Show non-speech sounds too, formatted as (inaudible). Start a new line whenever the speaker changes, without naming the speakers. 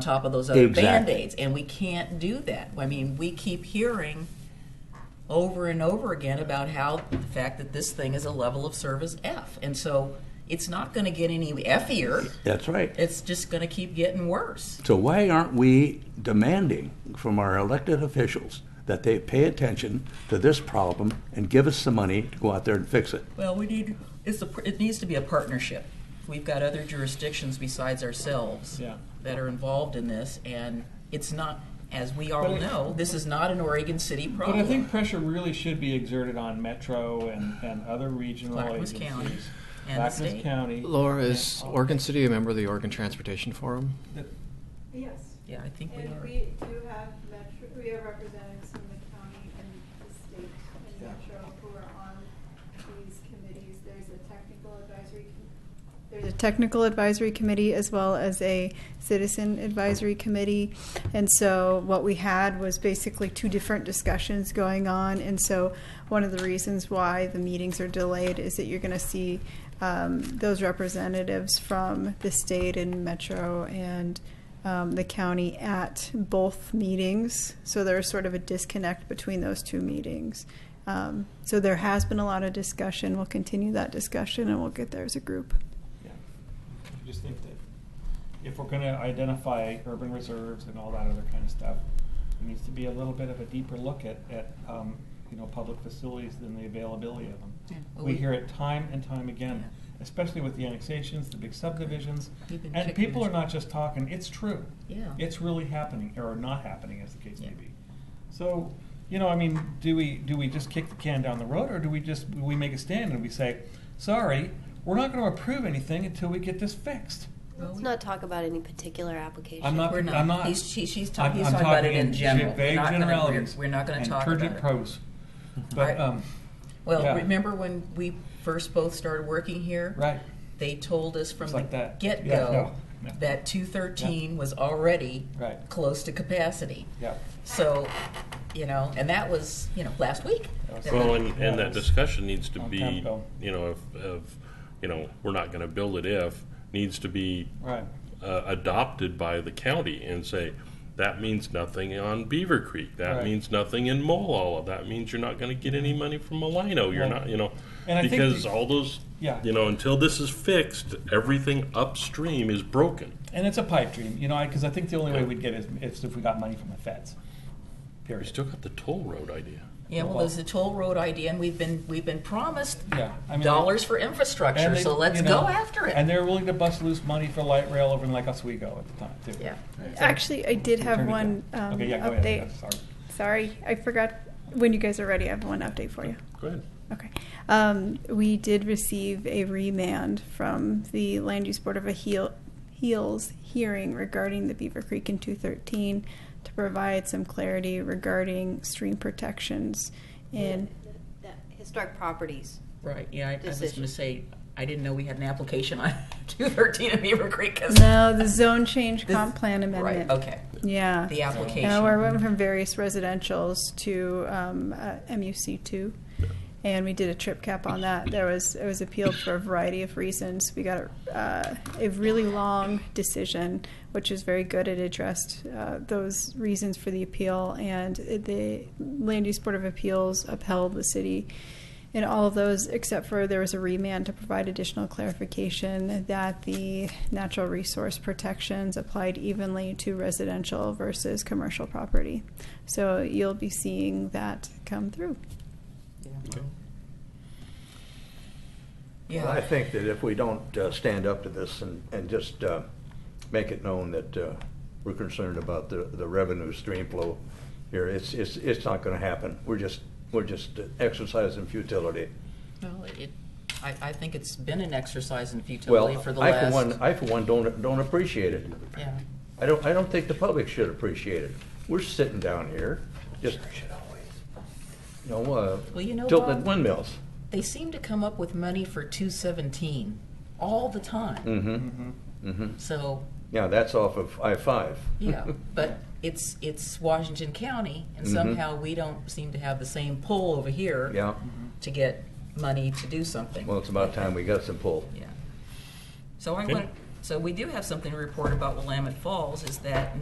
on top of those other
Exactly.
band-aids and we can't do that i mean we keep hearing over and over again about how the fact that this thing is a level of service f and so it's not going to get any effier
That's right.
it's just going to keep getting worse
So why aren't we demanding from our elected officials that they pay attention to this problem and give us the money to go out there and fix it?
well we need it's a, it needs to be a partnership we've got other jurisdictions besides ourselves
Yeah.
that are involved in this and it's not as we all
But I-
know this is not an oregon city problem
But I think pressure really should be exerted on Metro and, and other regional
Clackamas
agencies.
County and the
Clackamas
state.
County.
Laura, is Oregon City a member of the Oregon Transportation Forum?
Yes.
yeah i think we
And
are
we do have metro, we have representatives from the county and the state and metro who are on these committees. There's a technical advisory, com- there's a technical advisory committee as well as a citizen advisory committee. And so what we had was basically two different discussions going on. And so one of the reasons why the meetings are delayed is that you're going to see um, those representatives from the state and metro and um, the county at both meetings. So there's sort of a disconnect between those two meetings. Um, so there has been a lot of discussion. We'll continue that discussion and we'll get there as a group.
Yeah. I just think that if we're going to identify urban reserves and all that other kind of stuff, there needs to be a little bit of a deeper look at, at um, you know, public facilities and the availability of them.
Yeah. Well,
We
we-
hear it time and time again,
Yeah.
especially with the annexations, the big subdivisions.
We've been
And
kicking
people are
this-
not just talking, it's true.
Yeah.
It's really happening, or not happening, as the case may
Yeah.
be. So, you know, I mean, do we, do we just kick the can down the road, or do we just, we make a stand and we say, sorry, we're not gonna approve anything until we get this fixed?
Well,
Let's
we-
not talk about any particular application.
I'm not,
We're
I'm
not.
not.
He's- she- she's
I'm-
talk- he's
I'm
talking about it in
ge-
general. We're
Vague
not gonna- we're-
generalities.
we're not gonna talk
And
about
turgid
it. (laughs)
prose.
Right.
But, um,
Well,
Yeah.
remember when we first both started working here?
right,
They told us from
It's
the
like that.
get go
Yeah, no, no.
that 213 was already
Right.
close to capacity.
yeah.
So, you know, and that was, you know, last week.
That was-
Well, and,
Yeah,
and that
that's-
discussion needs to
Long
be,
time ago.
you know, of, of, you know, we're not gonna build it if, needs to be
Right,
uh, adopted by the county and say, that means nothing on Beaver Creek, that
Right.
means nothing in Molalla, that means you're not gonna get any money from Malino, you're
Right.
not, you know.
And I think
Because
the-
all those,
Yeah.
you know, until this is fixed, everything upstream is broken.
and it's a pipe dream, you know, I, cause I think the only way we'd get is, is if we got money from the feds,
We
period.
still got the toll road idea.
Yeah, well,
Well-
there's the toll road idea, and we've been we've been promised
Yeah, I mean.
dollars for
and
infrastructure,
they-
so let's
you know,
go after it.
And they're willing to bust loose money for light rail over in Lake Oswego at the time, too.
yeah.
Actually, I did have
Turn it
one
down.
um,
Okay, yeah, go ahead.
update.
Yeah, Sorry.
Sorry, I forgot. When you guys are ready, I have one update for you.
Go ahead.
Okay. Um, we did receive a remand from the Land Use Board of Aheel- Heels hearing regarding the Beaver Creek in 213 to provide some clarity regarding stream protections in.
The Historic properties.
Right. Yeah, I, I was going
Decision.
to say I didn't know we had an application on (laughs) 213 in Beaver Creek. 'cause-
No, the zone change
This-
comp plan amendment.
Right. Okay.
Yeah.
The application.
Yeah, we went from various residentials to um, uh, MUC two, and we did a trip cap on that. There was it was appealed for a variety of reasons. We got a, uh, a really long decision, which is very good. It addressed uh, those reasons for the appeal, and the Land Use Board of Appeals upheld the city. In all of those, except for there was a remand to provide additional clarification that the natural resource protections applied evenly to residential versus commercial property. So you'll be seeing that come through.
Yeah.
Okay.
Yeah.
Well, I think that if we don't uh, stand up to this and, and just uh, make it known that uh, we're concerned about the, the revenue stream flow here, it's, it's, it's not gonna happen. We're just, we're just uh, exercising futility.
Well, it, I, I think it's been an exercise in futility
Well,
for the
I
last.
for one, I for one don't, don't appreciate it.
yeah.
I don't, I don't think the public should appreciate it. We're sitting down here, just, you know,
Well, you know,
uh, tilting
Bob-
windmills.
They seem to come up with money for 217 all the time.
Mm-hmm, mm-hmm.
So
Yeah, that's off of I-5.
yeah, but it's it's Washington County, and
Mhm.
somehow we don't seem to have the same pull over here
(laughs) Yeah,
Mm-hmm.
to get money to do something.
well, it's about time we got some pull.
Yeah. So I
Okay.
want So we do have something to report about Willamette Falls, is that